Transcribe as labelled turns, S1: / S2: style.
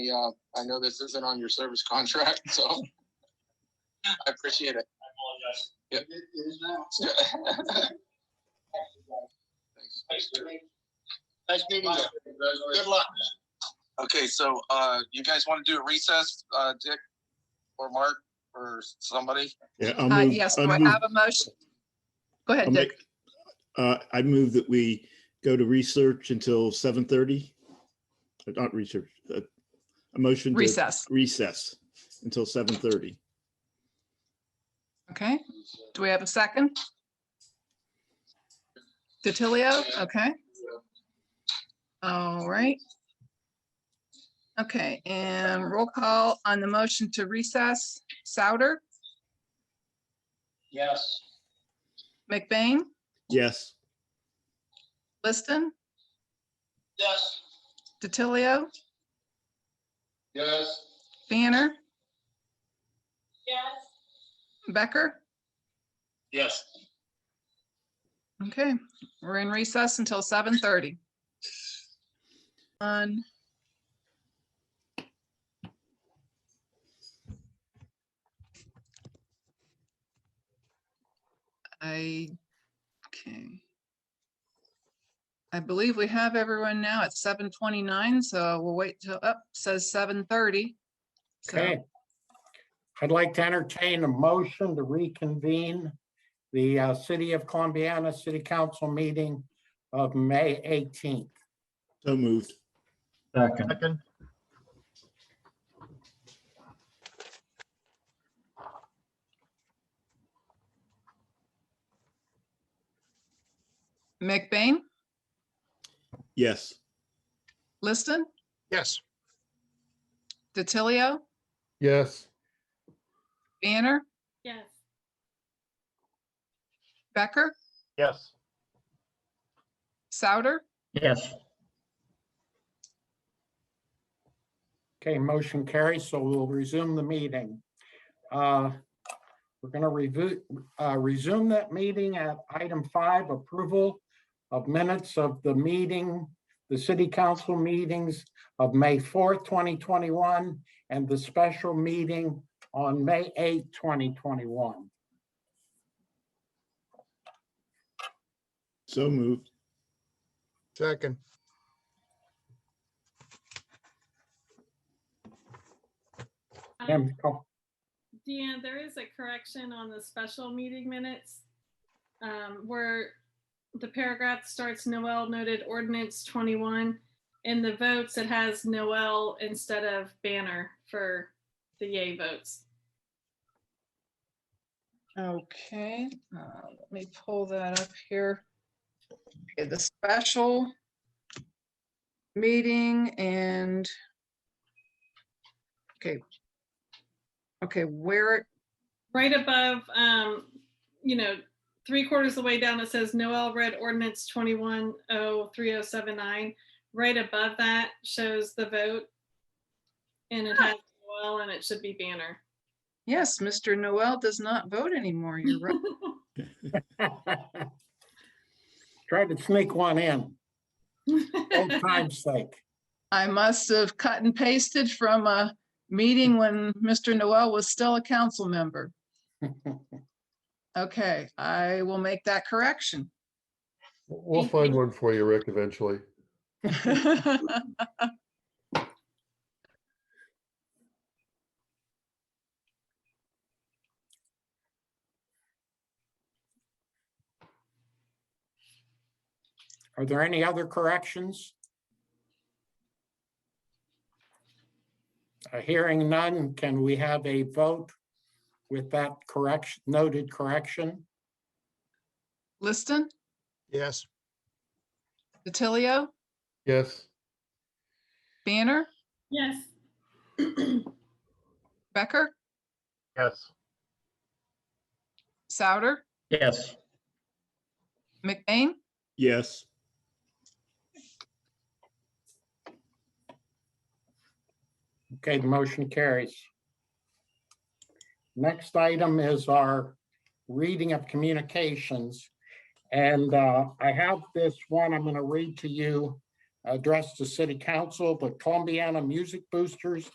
S1: Yeah, I know this isn't on your service contract, so I appreciate it.
S2: I apologize. It it is now.
S1: Thanks.
S2: Nice meeting you. Good luck.
S1: Okay, so, uh, you guys want to do a recess, uh, Dick or Mark or somebody?
S3: Yeah, I'll
S4: Uh,
S3: move.
S4: Yes,
S3: I'll
S4: do I
S3: move-
S4: have a motion. Go
S3: I'll
S4: ahead, Dick.
S3: make- uh, I move that we go to research until seven thirty. Not research, uh, a motion. to
S4: Recess.
S3: Recess until seven thirty.
S4: Okay. Do we have a second? DiTilio, okay. All right. Okay, and roll call on the motion to recess. Souter,
S2: Yes.
S4: McBain,
S3: Yes,
S4: Liston,
S2: Yes.
S4: DiTilio,
S2: Yes.
S4: Banner,
S5: Yes.
S4: Becker.
S2: Yes.
S4: Okay, we're in recess until seven thirty. On. I, okay. I believe we have everyone now at seven twenty-nine, so we'll wait till, up says seven thirty.
S6: Okay. I'd like to entertain a motion to reconvene the uh, City of Columbiana City Council meeting of May 18th.
S3: so moved.
S7: Second,
S4: McBain,
S3: Yes,
S4: Liston,
S1: Yes.
S4: DiTilio,
S7: yes,
S4: Banner,
S5: Yes.
S4: Becker,
S7: yes.
S4: Souter.
S7: Yes.
S6: Okay, motion carries, so we'll resume the meeting. Uh, We're going to review, uh, resume that meeting at item five, approval of minutes of the meeting, the city council meetings of May 4th, 2021, and the special meeting on May 8th, 2021.
S3: so moved.
S7: Second,
S6: Ma'am, oh,
S5: Deanne, Um, there is a correction on the special meeting minutes. um, Where the paragraph starts Noel noted ordinance twenty-one. In the votes, it has Noel instead of Banner for the yay votes.
S4: Okay, uh, let me pull that up here. Okay, The special meeting and okay. Okay, where, it-
S5: Right above, um, you know, three quarters of the way down, it says Noel read ordinance twenty-one oh three oh seven nine. Right above that shows the vote. And it has Noel and it should be Banner.
S4: yes, Mr. Noel does not vote anymore. You're right.
S6: Tried to sneak one in, old time's sake.
S4: I must have cut and pasted from a meeting when Mr. Noel was still a council member. Okay, I will make that correction.
S7: we'll find one for you, Rick, eventually.
S6: Are there any other corrections? Uh, Hearing none, can we have a vote with that correction, noted correction?
S4: Liston,
S7: Yes.
S4: DiTilio,
S7: Yes,
S4: Banner,
S5: Yes,
S4: Becker,
S7: yes.
S4: Souter,
S7: Yes.
S4: McBain,
S3: Yes,
S6: Okay, the motion carries. Next item is our reading of communications. And uh, I have this one I'm going to read to you addressed to city council, the Columbiana Music Boosters